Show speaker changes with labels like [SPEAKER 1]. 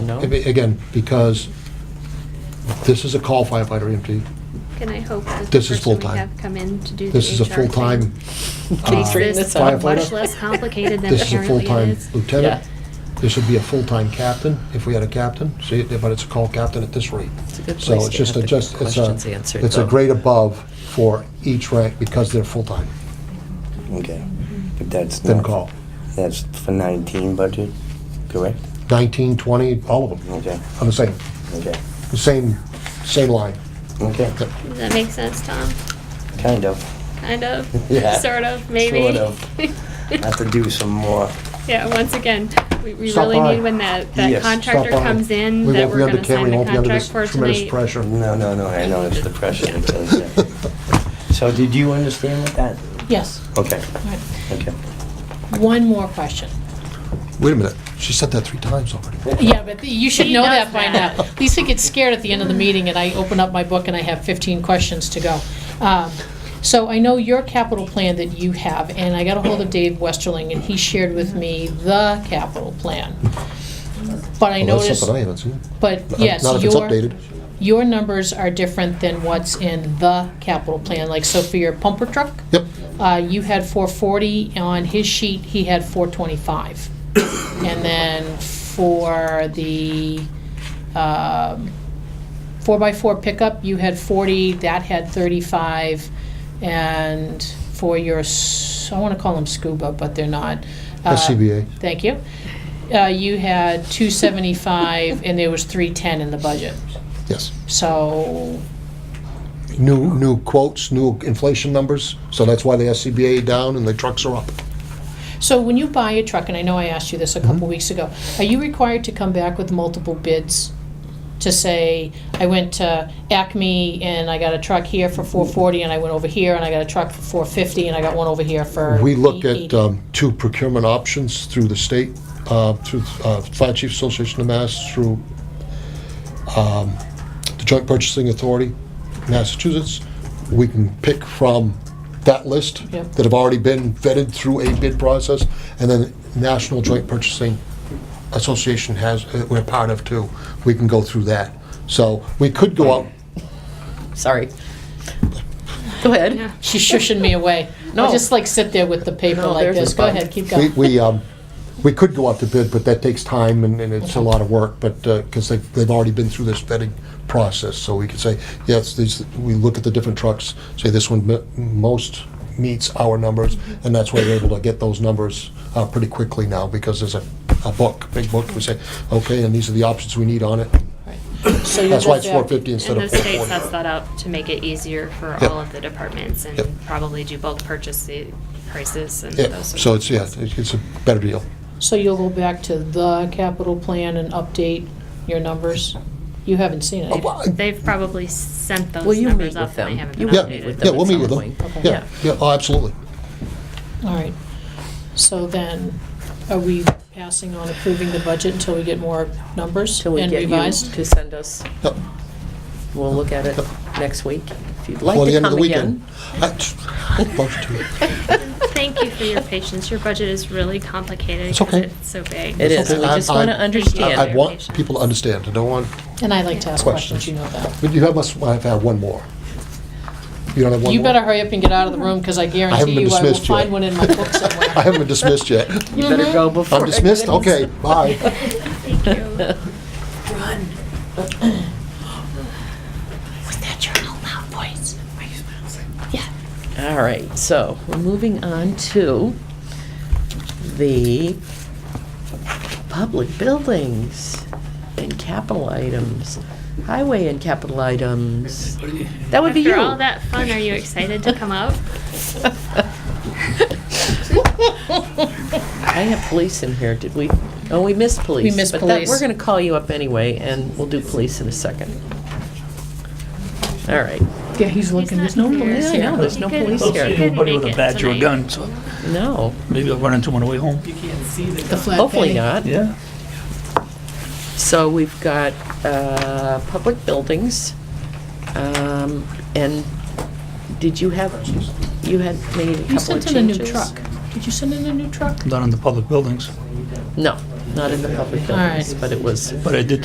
[SPEAKER 1] No?
[SPEAKER 2] I mean, Again, because this is a call firefighter E EMT.
[SPEAKER 3] Can I hope that the
[SPEAKER 2] This is
[SPEAKER 3] person we
[SPEAKER 2] full-time.
[SPEAKER 3] have come in to do the HR thing?
[SPEAKER 2] This is a full-time,
[SPEAKER 4] Can you
[SPEAKER 2] Uh,
[SPEAKER 4] straighten
[SPEAKER 3] This
[SPEAKER 4] this
[SPEAKER 2] firefighter?
[SPEAKER 4] out?
[SPEAKER 3] is much less complicated than
[SPEAKER 2] this is a
[SPEAKER 3] apparently it
[SPEAKER 2] full-time
[SPEAKER 3] is.
[SPEAKER 2] lieutenant. This would be a full-time captain, if we had a captain, see, but it's a call captain at this rate.
[SPEAKER 4] It's a good
[SPEAKER 2] So
[SPEAKER 4] place
[SPEAKER 2] it's
[SPEAKER 4] to
[SPEAKER 2] just
[SPEAKER 4] have
[SPEAKER 2] a,
[SPEAKER 4] the
[SPEAKER 2] just, it's
[SPEAKER 4] questions
[SPEAKER 2] a,
[SPEAKER 4] answered,
[SPEAKER 2] it's a
[SPEAKER 4] though.
[SPEAKER 2] grade above for each rank because they're full-time.
[SPEAKER 5] Okay, but that's
[SPEAKER 2] Then
[SPEAKER 5] not-
[SPEAKER 2] call.
[SPEAKER 5] That's for 19 budget, correct?
[SPEAKER 2] 19, 20, all of them,
[SPEAKER 5] Okay,
[SPEAKER 2] on the same,
[SPEAKER 5] okay,
[SPEAKER 2] the same, same line.
[SPEAKER 5] okay,
[SPEAKER 3] Does that make sense, Tom?
[SPEAKER 5] kind of.
[SPEAKER 3] Kind of?
[SPEAKER 5] Yeah.
[SPEAKER 3] Sort of, maybe?
[SPEAKER 5] Sort I have to do some more.
[SPEAKER 3] Yeah, once again, we we
[SPEAKER 2] Stop
[SPEAKER 3] really
[SPEAKER 2] by.
[SPEAKER 3] need when that, that
[SPEAKER 5] Yes, stop
[SPEAKER 3] contractor
[SPEAKER 2] Stop by.
[SPEAKER 3] comes in,
[SPEAKER 2] We
[SPEAKER 3] that
[SPEAKER 2] won't be
[SPEAKER 3] we're
[SPEAKER 2] under
[SPEAKER 3] gonna
[SPEAKER 2] Ken, we
[SPEAKER 3] sign the
[SPEAKER 2] won't be under
[SPEAKER 3] contract
[SPEAKER 2] this
[SPEAKER 3] for
[SPEAKER 2] Tremendous
[SPEAKER 3] tonight.
[SPEAKER 2] pressure.
[SPEAKER 5] No, no, no, I know, it's the pressure. but it's, uh, So did you understand what that?
[SPEAKER 4] Yes.
[SPEAKER 5] Okay,
[SPEAKER 4] All right.
[SPEAKER 5] okay.
[SPEAKER 4] One more question.
[SPEAKER 2] Wait a minute, she said that three times already.
[SPEAKER 4] Yeah, but you should
[SPEAKER 3] He
[SPEAKER 4] know
[SPEAKER 3] knows
[SPEAKER 4] that by
[SPEAKER 3] that.
[SPEAKER 4] now. Lisa gets scared at the end of the meeting, and I open up my book and I have 15 questions to go. Um, So I know your capital plan that you have, and I got a hold of Dave Westerling, and he shared with me the capital plan. But I
[SPEAKER 2] Well, that's
[SPEAKER 4] noticed,
[SPEAKER 2] something I haven't seen.
[SPEAKER 4] but
[SPEAKER 2] Not-
[SPEAKER 4] yes, your...
[SPEAKER 2] Not if it's updated.
[SPEAKER 4] Your numbers are different than what's in the capital plan, like so for your pumper truck,
[SPEAKER 2] Yep,
[SPEAKER 4] uh, you had four forty, on his sheet, he had four twenty-five. And then for the, um, four-by-four pickup, you had forty, that had thirty-five. And for your, s- I wanna call them scuba, but they're not. uh,
[SPEAKER 2] SCBA.
[SPEAKER 4] Thank you. Uh, you had two seventy-five, and there was three-ten in the budget.
[SPEAKER 2] yes.
[SPEAKER 4] So,
[SPEAKER 2] New, new quotes, new inflation numbers, so that's why the SCBA down and the trucks are up.
[SPEAKER 4] so when you buy a truck, and I know I asked you this a
[SPEAKER 2] Mm-hmm.
[SPEAKER 4] couple weeks ago, are you required to come back with multiple bids? To say, I went to Acme and I got a truck here for four forty, and I went over here and I got a truck for four fifty, and I got one over here for.
[SPEAKER 2] We look at
[SPEAKER 4] 880.
[SPEAKER 2] um, two procurement options through the state, uh, through uh, Fire Chiefs Association of Mass, through um, the Joint Purchasing Authority, Massachusetts. We can pick from that list
[SPEAKER 4] Yep.
[SPEAKER 2] that have already been vetted through a bid process, and then National Joint Purchasing Association has, uh, we're part of too. We can go through that. So we could go out
[SPEAKER 6] Sorry. Go ahead.
[SPEAKER 3] Yeah.
[SPEAKER 4] She's shushing me away.
[SPEAKER 6] No.
[SPEAKER 4] I'll just like sit there with the paper
[SPEAKER 6] No,
[SPEAKER 4] like
[SPEAKER 6] there's
[SPEAKER 4] this.
[SPEAKER 6] a
[SPEAKER 4] Go
[SPEAKER 6] button.
[SPEAKER 4] ahead, keep
[SPEAKER 2] We,
[SPEAKER 4] going.
[SPEAKER 2] we, um, we could go out to bid, but that takes time and, and it's a lot of work, but, uh, because they've, they've already been through this vetting process, so we could say, yes, these, we look at the different trucks, say this one me- most meets our numbers, and that's why we're able to get those numbers, uh, pretty quickly now, because there's a, a book, big book, we say, okay, and these are the options we need on it.
[SPEAKER 4] So
[SPEAKER 2] That's why
[SPEAKER 4] you're
[SPEAKER 2] it's four
[SPEAKER 4] just,
[SPEAKER 2] fifty instead
[SPEAKER 3] And the
[SPEAKER 2] of
[SPEAKER 3] state
[SPEAKER 2] four
[SPEAKER 3] sets
[SPEAKER 2] forty.
[SPEAKER 3] that up to make it easier for
[SPEAKER 2] Yep.
[SPEAKER 3] all of the departments and
[SPEAKER 2] Yep.
[SPEAKER 3] probably do bulk purchase the prices and
[SPEAKER 2] Yeah,
[SPEAKER 3] those. sorts
[SPEAKER 2] so
[SPEAKER 3] of
[SPEAKER 2] it's, yeah,
[SPEAKER 3] things.
[SPEAKER 2] it's it's a better deal.
[SPEAKER 4] so you'll go back to the capital plan and update your numbers? You haven't seen it.
[SPEAKER 2] Oh, Well,
[SPEAKER 3] They've probably sent those
[SPEAKER 6] Will you
[SPEAKER 3] numbers
[SPEAKER 6] meet
[SPEAKER 3] up
[SPEAKER 6] with
[SPEAKER 3] and they
[SPEAKER 6] them?
[SPEAKER 3] haven't
[SPEAKER 6] You
[SPEAKER 3] been
[SPEAKER 2] Yeah.
[SPEAKER 6] will meet with
[SPEAKER 3] updated.
[SPEAKER 6] them
[SPEAKER 2] Yeah, we'll
[SPEAKER 6] at
[SPEAKER 2] meet with
[SPEAKER 6] some
[SPEAKER 2] them.
[SPEAKER 6] point.
[SPEAKER 4] Okay.
[SPEAKER 2] Yeah, yeah, oh, absolutely.
[SPEAKER 4] All right. So then, are we passing on approving the budget until we get more numbers
[SPEAKER 6] Till we
[SPEAKER 4] and
[SPEAKER 6] get you
[SPEAKER 4] revised?
[SPEAKER 6] to send us,
[SPEAKER 2] Yep.
[SPEAKER 6] we'll look at it
[SPEAKER 2] Yep.
[SPEAKER 6] next week. If you'd
[SPEAKER 2] Well,
[SPEAKER 6] like
[SPEAKER 2] the
[SPEAKER 6] to
[SPEAKER 2] end of
[SPEAKER 6] come
[SPEAKER 2] the weekend.
[SPEAKER 6] again.
[SPEAKER 2] I- oh, I'd love to.
[SPEAKER 3] Thank you for your patience. Your budget is really complicated.
[SPEAKER 2] It's
[SPEAKER 3] 'cause
[SPEAKER 2] okay.
[SPEAKER 3] It's so big.
[SPEAKER 6] It
[SPEAKER 2] It's
[SPEAKER 6] is, we
[SPEAKER 2] okay. I-
[SPEAKER 6] just
[SPEAKER 2] I-
[SPEAKER 6] want to
[SPEAKER 3] Yeah.
[SPEAKER 2] I I
[SPEAKER 6] understand.
[SPEAKER 2] want people to understand, I don't want,
[SPEAKER 4] And I like to ask
[SPEAKER 2] Questions.
[SPEAKER 4] questions, you know that.
[SPEAKER 2] but you have, must have had one more. You don't have one more?
[SPEAKER 4] You better hurry up and get out of the room, because I
[SPEAKER 2] haven't
[SPEAKER 4] guarantee
[SPEAKER 2] been
[SPEAKER 4] you I will
[SPEAKER 2] dismissed yet.
[SPEAKER 4] find one in my book somewhere.
[SPEAKER 2] I haven't been dismissed yet.
[SPEAKER 6] You better go before.
[SPEAKER 2] I'm dismissed,
[SPEAKER 6] everything's-
[SPEAKER 2] okay, bye.
[SPEAKER 3] Thank you.
[SPEAKER 4] With that your loud voice. Yeah.
[SPEAKER 6] All right, so we're moving on to the public buildings and capital items, highway and capital items. That would be you.
[SPEAKER 3] After all that fun, are you excited to come up?
[SPEAKER 6] I have police in here, did we? Oh, we missed police.
[SPEAKER 4] We missed
[SPEAKER 6] But that,
[SPEAKER 4] police.
[SPEAKER 6] we're gonna call you up anyway, and we'll do police in a second. All right,
[SPEAKER 4] Yeah, he's looking,
[SPEAKER 3] He's
[SPEAKER 4] there's
[SPEAKER 3] not
[SPEAKER 4] no
[SPEAKER 3] here.
[SPEAKER 4] police
[SPEAKER 6] Yeah, I know,
[SPEAKER 4] here.
[SPEAKER 6] there's no police
[SPEAKER 3] He
[SPEAKER 6] here.
[SPEAKER 3] couldn't
[SPEAKER 7] Anybody
[SPEAKER 3] make
[SPEAKER 7] with a
[SPEAKER 3] it
[SPEAKER 7] badge or a
[SPEAKER 3] tonight.
[SPEAKER 7] gun, so
[SPEAKER 6] no,
[SPEAKER 7] maybe I'll run into one on the way home.
[SPEAKER 4] The flat
[SPEAKER 6] hopefully
[SPEAKER 4] padding.
[SPEAKER 6] not.
[SPEAKER 7] Yeah.
[SPEAKER 6] So we've got, uh, public buildings, um, and did you have, you had made a
[SPEAKER 4] You
[SPEAKER 6] couple of
[SPEAKER 4] sent in a new
[SPEAKER 6] changes?
[SPEAKER 4] truck. Did you send in a new truck?
[SPEAKER 7] Not on the public buildings,
[SPEAKER 6] No, not in the public
[SPEAKER 4] All right.
[SPEAKER 6] buildings, but it was
[SPEAKER 7] but I did